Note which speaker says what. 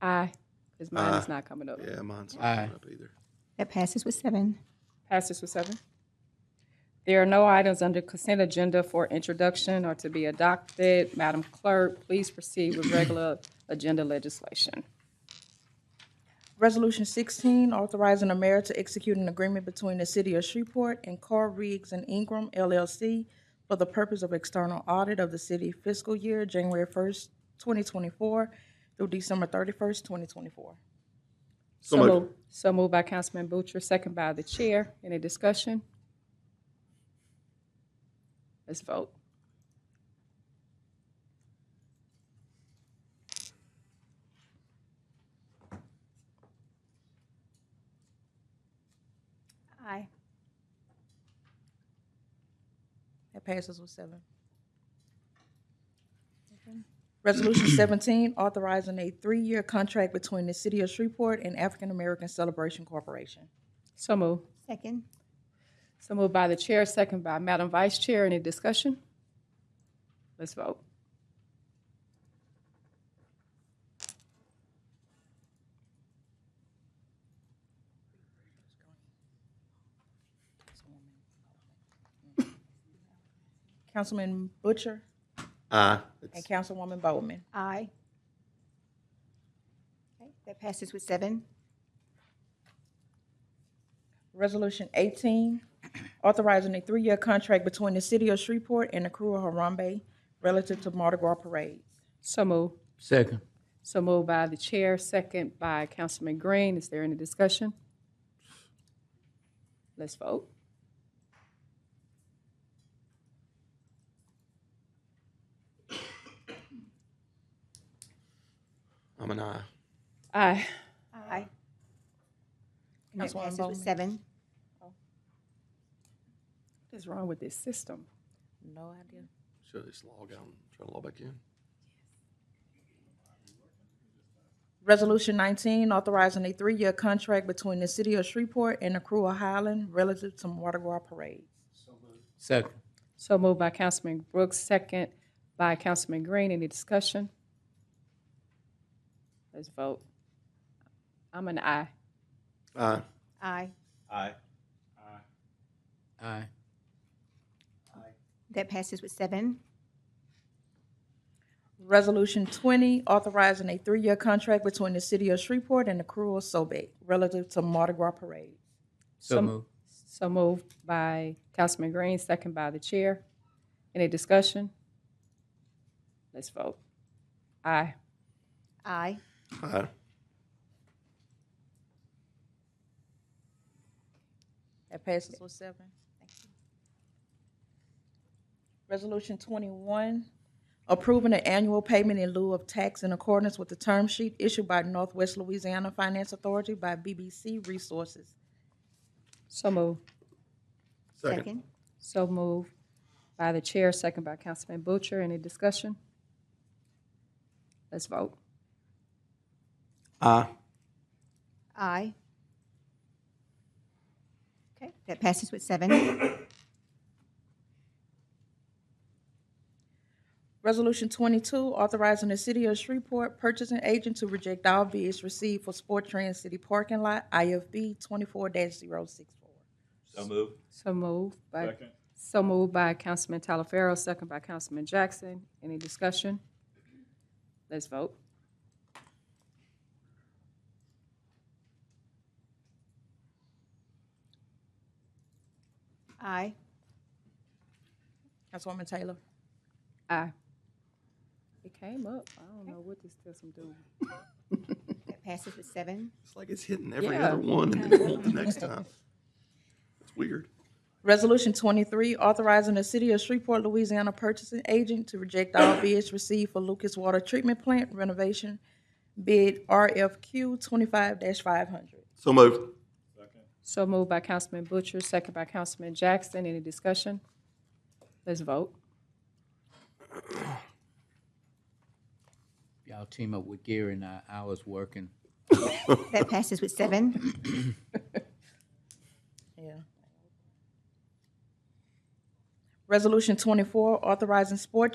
Speaker 1: Aye, because mine is
Speaker 2: Aye.
Speaker 1: not coming up.
Speaker 2: Yeah, mine's not
Speaker 3: Aye.
Speaker 2: coming up either.
Speaker 4: That passes with seven.
Speaker 1: Passes with seven. There are no items under consent agenda for introduction or to be adopted. Madam Clerk, please proceed with regular agenda legislation.
Speaker 5: Resolution sixteen, authorizing the mayor to execute an agreement between the city of Shreveport and Carl Riggs and Ingram LLC for the purpose of external audit of the city fiscal year, January first, twenty twenty-four through December thirty-first, twenty twenty-four.
Speaker 2: So moved.
Speaker 1: So moved by Councilman Butcher, second by the chair. Any discussion? Let's vote.
Speaker 4: Aye.
Speaker 5: That passes with seven. Resolution seventeen, authorizing a three-year contract between the city of Shreveport and African American Celebration Corporation.
Speaker 1: So moved.
Speaker 4: Second.
Speaker 1: So moved by the chair, second by Madam Vice Chair. Any discussion? Let's vote.
Speaker 5: Councilman Butcher
Speaker 2: Aye.
Speaker 5: and
Speaker 2: It's-
Speaker 5: Councilwoman Bowman.
Speaker 4: Aye. Okay, that passes with seven.
Speaker 5: Resolution eighteen, authorizing a three-year contract between the city of Shreveport and the crew of Harambe relative to Mardi Gras parades.
Speaker 1: So moved.
Speaker 3: Second.
Speaker 1: So moved by the chair, second by Councilman Green. Is there any discussion? Let's vote.
Speaker 2: I'm an aye.
Speaker 1: Aye.
Speaker 4: Aye. And that
Speaker 5: Councilwoman
Speaker 4: passes
Speaker 5: Bowman.
Speaker 4: with seven.
Speaker 1: What is wrong with this system?
Speaker 5: No idea.
Speaker 2: Should I just log out and try to log back in?
Speaker 5: Resolution nineteen, authorizing a three-year contract between the city of Shreveport and the crew of Highland relative to Mardi Gras parades.
Speaker 3: Second.
Speaker 1: So moved by Councilman Brooks, second by Councilman Green. Any discussion? Let's vote. I'm an aye.
Speaker 2: Aye.
Speaker 4: Aye.
Speaker 3: Aye.
Speaker 4: That passes with seven.
Speaker 5: Resolution twenty, authorizing a three-year contract between the city of Shreveport and the crew of Sobek relative to Mardi Gras parades.
Speaker 3: So
Speaker 1: Some-
Speaker 3: moved.
Speaker 1: So moved by Councilman Green, second by the chair. Any discussion? Let's vote. Aye.
Speaker 4: Aye.
Speaker 2: Aye.
Speaker 5: That passes with seven. Resolution twenty-one, approving an annual payment in lieu of tax in accordance with the term sheet issued by Northwest Louisiana Finance Authority by BBC Resources.
Speaker 1: So moved.
Speaker 2: Second.
Speaker 1: So moved by the chair, second by Councilman Butcher. Any discussion? Let's vote.
Speaker 2: Aye.
Speaker 4: Aye. Okay, that passes with seven.
Speaker 5: Resolution twenty-two, authorizing the city of Shreveport purchasing agent to reject all bids received for Sport Trans City Parking Lot, IFB twenty-four 64
Speaker 6: So move.
Speaker 1: So moved by, so moved by Councilman Talaferro, second by Councilman Jackson. Any discussion? Let's vote.
Speaker 4: Aye.
Speaker 5: Councilwoman Taylor.
Speaker 1: Aye. It came up. I don't know what this system doing.
Speaker 4: That passes with seven.
Speaker 2: It's like it's hitting every
Speaker 1: Yeah.
Speaker 2: other one and then it won't the next time. It's weird.
Speaker 5: Resolution twenty-three, authorizing the city of Shreveport, Louisiana purchasing agent to reject all bids received for Lucas Water Treatment Plant renovation bid RFQ twenty-five five hundred.
Speaker 2: So moved.
Speaker 1: So moved by Councilman Butcher, second by Councilman Jackson. Any discussion? Let's vote.
Speaker 3: Y'all team up with Gary and I. I was working.
Speaker 4: That passes with seven.
Speaker 5: Yeah. Resolution twenty-four, authorizing sport